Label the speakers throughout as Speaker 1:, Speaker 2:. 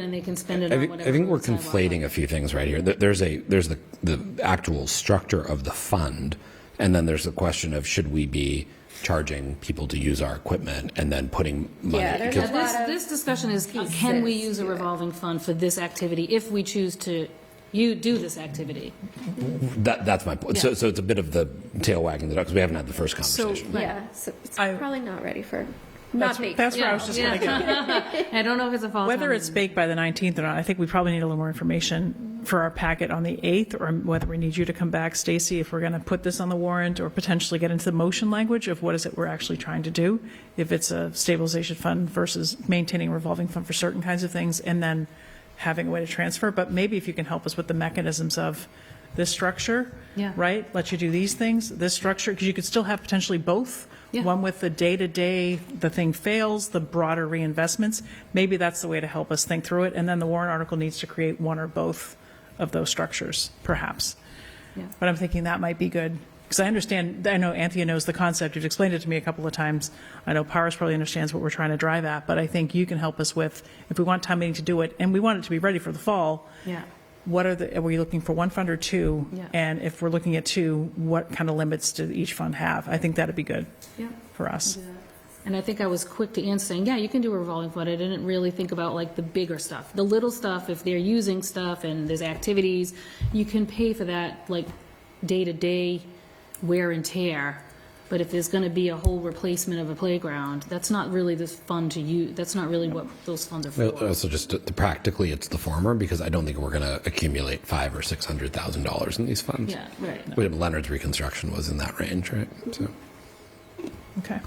Speaker 1: And they can spend it
Speaker 2: I
Speaker 1: on
Speaker 2: think,
Speaker 1: whatever.
Speaker 2: I think we're
Speaker 1: roadside
Speaker 2: conflating a
Speaker 1: wildlife.
Speaker 2: few things right here. There- There's a, there's the, the actual structure of the fund, and then there's the question of should we be charging people to use our equipment and then putting money?
Speaker 3: Yeah, there's a
Speaker 2: because-
Speaker 3: lot
Speaker 1: This, this
Speaker 3: of
Speaker 1: discussion is, uh, can we use a revolving fund for this activity if we choose to, you do this activity?
Speaker 2: That, that's my point. So, so it's a bit of the tail wagging the dog, because we haven't had the first conversation.
Speaker 3: Yeah, so it's
Speaker 4: I-
Speaker 3: probably not ready for, not me.
Speaker 4: That's where I was just going to go.
Speaker 1: I don't know if it's a fall
Speaker 4: Whether
Speaker 1: town
Speaker 4: it's
Speaker 1: meeting.
Speaker 4: baked by the 19th or not, I think we probably need a little more information for our packet on the 8th, or whether we need you to come back, Stacy, if we're going to put this on the warrant, or potentially get into the motion language of what is it we're actually trying to do, if it's a stabilization fund versus maintaining a revolving fund for certain kinds of things, and then having a way to transfer. But maybe if you can help us with the mechanisms of this structure,
Speaker 1: Yeah.
Speaker 4: right? Let you do these things, this structure, because you could still have potentially both.
Speaker 1: Yeah.
Speaker 4: One with the day-to-day, the thing fails, the broader reinvestments. Maybe that's the way to help us think through it. And then the warrant article needs to create one or both of those structures, perhaps.
Speaker 1: Yeah.
Speaker 4: But I'm thinking that might be good, because I understand, I know Anthea knows the concept. You've explained it to me a couple of times. I know Powers probably understands what we're trying to drive at, but I think you can help us with, if we want town meeting to do it, and we want it to be ready for the fall,
Speaker 1: Yeah.
Speaker 4: what are the, are we looking for one fund or two?
Speaker 1: Yeah.
Speaker 4: And if we're looking at two, what kind of limits do each fund have? I think that'd be good
Speaker 1: Yeah.
Speaker 4: for us.
Speaker 1: And I think I was quick to answer saying, yeah, you can do a revolving fund. I didn't really think about like the bigger stuff. The little stuff, if they're using stuff and there's activities, you can pay for that like day-to-day wear and tear. But if there's going to be a whole replacement of a playground, that's not really this fund to use. That's not really what those funds are
Speaker 2: Well, uh,
Speaker 1: for.
Speaker 2: Also, just to- to practically, it's the former, because I don't think we're going to accumulate five or six hundred thousand dollars in these funds.
Speaker 1: Yeah, right.
Speaker 2: Wait, Leonard's reconstruction was in that range, right? So.
Speaker 4: Okay.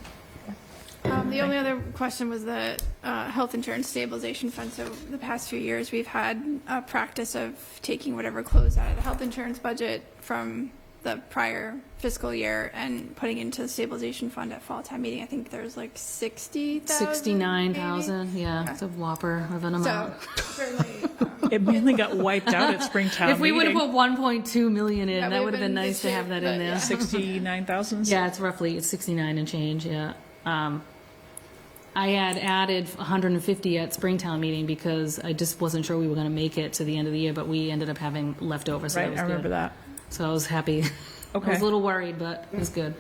Speaker 5: Um, The only other question was the uh, health insurance stabilization fund. So the past few years, we've had a practice of taking whatever close out of the health insurance budget from the prior fiscal year and putting into the stabilization fund at fall time meeting. I think there's like 60,000. maybe?
Speaker 1: 69,000, yeah, it's a whopper of an
Speaker 5: So um,
Speaker 1: amount.
Speaker 5: certainly,
Speaker 4: It mainly got wiped out at Springtown.
Speaker 1: If we would have
Speaker 4: meeting.
Speaker 1: put 1.2 million in,
Speaker 5: That
Speaker 1: that would
Speaker 5: would've
Speaker 1: have been
Speaker 5: been
Speaker 1: nice
Speaker 5: this
Speaker 1: to
Speaker 5: year,
Speaker 1: have that
Speaker 5: but
Speaker 1: in there.
Speaker 4: 69,000?
Speaker 1: Yeah, it's roughly, it's 69 and change, yeah. Um, I had added 150 at Springtown meeting because I just wasn't sure we were going to make it to the end of the year, but we ended up having leftover, so that
Speaker 4: Right,
Speaker 1: was
Speaker 4: I remember
Speaker 1: good.
Speaker 4: that.
Speaker 1: So I was happy. I was
Speaker 4: Okay.
Speaker 1: a little worried, but it was good.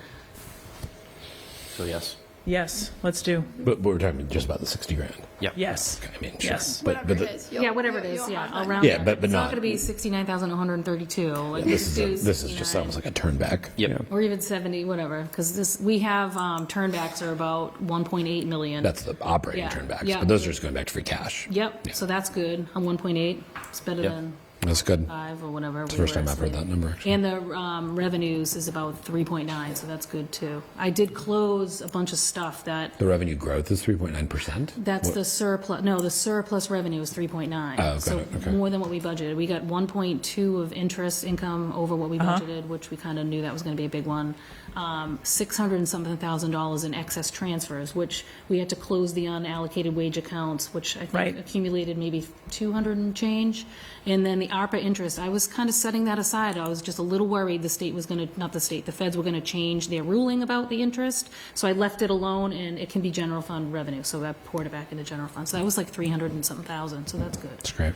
Speaker 2: So yes.
Speaker 4: Yes, let's do.
Speaker 2: But but we're talking just about the sixty grand. Yeah.
Speaker 4: Yes.
Speaker 2: I mean, sure.
Speaker 4: Yes.
Speaker 2: But, but
Speaker 5: whatever it
Speaker 2: the-
Speaker 5: is. you'll-
Speaker 1: Yeah, whatever it
Speaker 5: you'll-
Speaker 1: is,
Speaker 5: you'll
Speaker 1: yeah,
Speaker 5: have
Speaker 1: I'll
Speaker 5: that.
Speaker 1: round
Speaker 2: Yeah,
Speaker 1: up.
Speaker 2: but- but
Speaker 1: It's
Speaker 2: not-
Speaker 1: going to be 69,132, like,
Speaker 2: this is,
Speaker 1: just do
Speaker 2: a- this is just
Speaker 1: 69.
Speaker 2: sounds like a turn back. Yeah.
Speaker 1: Or even 70, whatever, because this, we have, um, turnbacks are about 1.8 million.
Speaker 2: That's the operating
Speaker 1: Yeah,
Speaker 2: turnbacks,
Speaker 1: yeah.
Speaker 2: but those are just going back to free cash.
Speaker 1: Yep, so that's good, on 1.8, it's better than
Speaker 2: That's good.
Speaker 1: five or whatever. It's
Speaker 2: the first time I've heard that number, actually.
Speaker 1: And the, um, revenues is about 3.9, so that's good too. I did close a bunch of stuff that,
Speaker 2: The revenue growth is 3.9%?
Speaker 1: that's the surplus, no, the surplus revenue is 3.9.
Speaker 2: Oh, got it, okay.
Speaker 1: So more than what we budgeted, we got 1.2 of interest income over what we budgeted, which we kind of knew that was going to be a big one. Um, 600 and something thousand dollars in excess transfers, which we had to close the unallocated wage accounts, which I think
Speaker 4: Right.
Speaker 1: accumulated maybe 200 and change. And then the ARPA interest, I was kind of setting that aside. I was just a little worried the state was going to, not the state, the feds were going to change their ruling about the interest. So I left it alone and it can be general fund revenue. So I poured it back into general fund. So that was like 300 and something thousand. So that's good.
Speaker 2: That's great.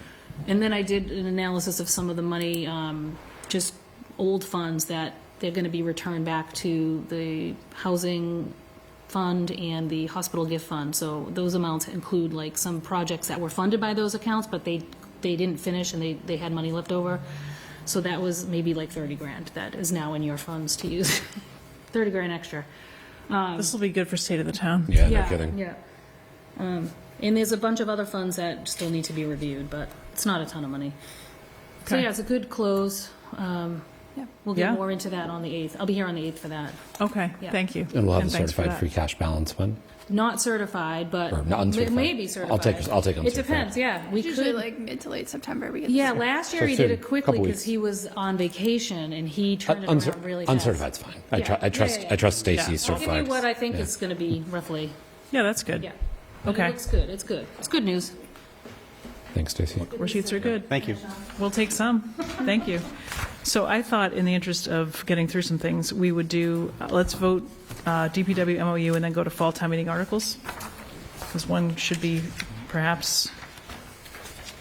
Speaker 1: And then I did an analysis of some of the money, um, just old funds that they're going to be returned back to the housing fund and the hospital gift fund. So those amounts include like some projects that were funded by those accounts, but they, they didn't finish and they, they had money left over. So that was maybe like 30 grand that is now in your funds to use. 30 grand extra.
Speaker 4: This will be good for state of the town.
Speaker 2: Yeah, no kidding.
Speaker 1: Yeah. Um, and there's a bunch of other funds that still need to be reviewed, but it's not a ton of money. So
Speaker 4: Okay.
Speaker 1: yeah, it's a good close. Um, we'll
Speaker 4: Yeah.
Speaker 1: get more into that on the 8th. I'll be here on the 8th for that.
Speaker 4: Okay, thank you.
Speaker 2: And we'll have a
Speaker 4: thanks for
Speaker 2: certified
Speaker 4: that.
Speaker 2: free cash balance fund?
Speaker 1: Not certified, but
Speaker 2: Or not uncertified.
Speaker 1: maybe certified.
Speaker 2: I'll take- I'll take
Speaker 1: It
Speaker 2: uncertified.
Speaker 1: depends, yeah. We
Speaker 5: Usually
Speaker 1: could,
Speaker 5: like mid to late September, we get.
Speaker 1: yeah, last year
Speaker 2: So
Speaker 1: he did
Speaker 2: soon.
Speaker 1: it quickly
Speaker 2: Couple
Speaker 1: because
Speaker 2: weeks. Uh,
Speaker 1: he was on vacation and he turned it
Speaker 2: Uncer-
Speaker 1: around really fast.
Speaker 2: Uncertified's fine. I
Speaker 1: Yeah.
Speaker 2: tru- I
Speaker 1: Yeah,
Speaker 2: trust,
Speaker 1: yeah, yeah.
Speaker 2: I trust
Speaker 4: Yeah.
Speaker 2: Stacy's
Speaker 1: I'll give you
Speaker 2: certified.
Speaker 1: what I think it's going to be roughly,
Speaker 4: Yeah, that's good.
Speaker 1: yeah. But
Speaker 4: Okay.
Speaker 1: It looks good, it's good. It's good news.
Speaker 2: Thanks, Stacy.
Speaker 4: Receipts are good.
Speaker 6: Thank you.
Speaker 4: We'll take some. Thank you. So I thought, in the interest of getting through some things, we would do, uh, let's vote uh, DPW MOU and then go to fall town meeting articles, because one should be perhaps